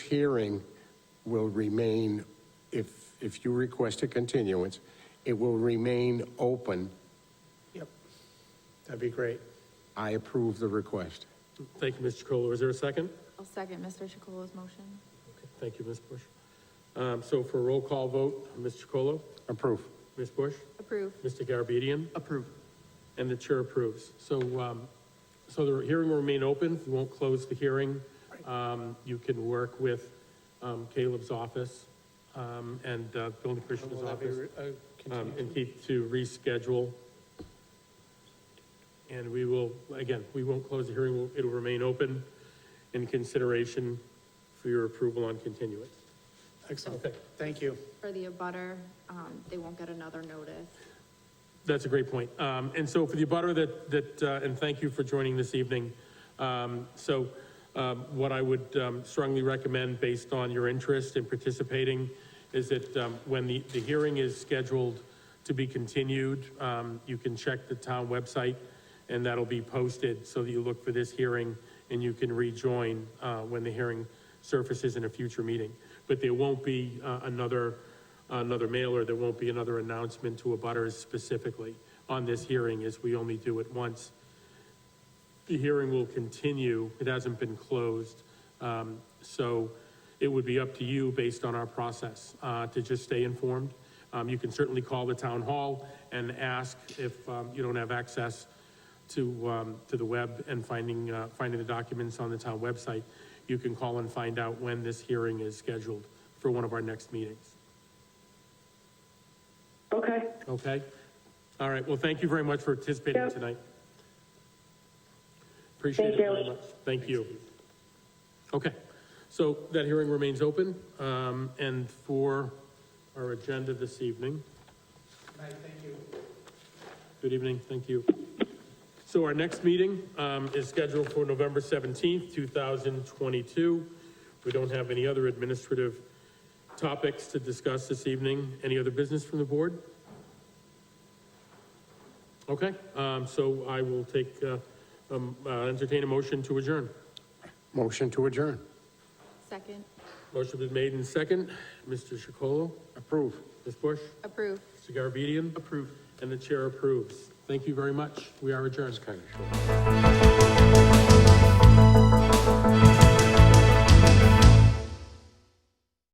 hearing will remain, if, if you request a continuance, it will remain open. Yep. That'd be great. I approve the request. Thank you, Mr. Chacolo. Is there a second? I'll second Mr. Chacolo's motion. Okay, Thank you, Ms. Bush. Um, so for a roll call vote, Mr. Chacolo, Approve. Ms. Bush, Approve. Mr. Garabedian, Approve. and the chair approves. So, um, so the hearing will remain open. We won't close the hearing. Um, you can work with, um, Caleb's office, um, and, uh, building commissioner's Will that be office. re- uh, a um, continuation? and Keith to reschedule. And we will, again, we won't close the hearing, We'll- it'll remain open in consideration for your approval on continuance. Excellent. Okay. Thank you. For the abutter, um, they won't get another notice. That's a great point. Um, and so for the abutter that, that, uh, and thank you for joining this evening. Um, so, um, what I would um, strongly recommend, based on your interest in participating, is that, um, when the, the hearing is scheduled to be continued, um, you can check the town website, and that'll be posted, so that you look for this hearing, and you can rejoin, uh, when the hearing surfaces in a future meeting. But there won't be, uh, another, another mailer, there won't be another announcement to abutters specifically on this hearing, as we only do it once. The hearing will continue, it hasn't been closed, um, so it would be up to you, based on our process, uh, to just stay informed. Um, you can certainly call the town hall and ask if, um, you don't have access to, um, to the web and finding, uh, finding the documents on the town website. You can call and find out when this hearing is scheduled for one of our next meetings. Okay, Okay? All right, well, thank you very much for participating Yep. tonight. Appreciate it Thank you. very much. Thank you. Okay, so that hearing remains open, um, and for our agenda this evening. Good evening, thank you. So our next meeting, um, is scheduled for November seventeenth, two thousand twenty-two. We don't have any other administrative topics to discuss this evening. Any other business from the board? Okay, um, so I will take, uh, um, uh, entertain a motion to adjourn. Motion to adjourn. Second. Motion been made in second. Mr. Chacolo, Approve. Ms. Bush, Approve. Mr. Garabedian? Approved. And the chair approves. Thank you very much. We are adjourned. It's kind of short.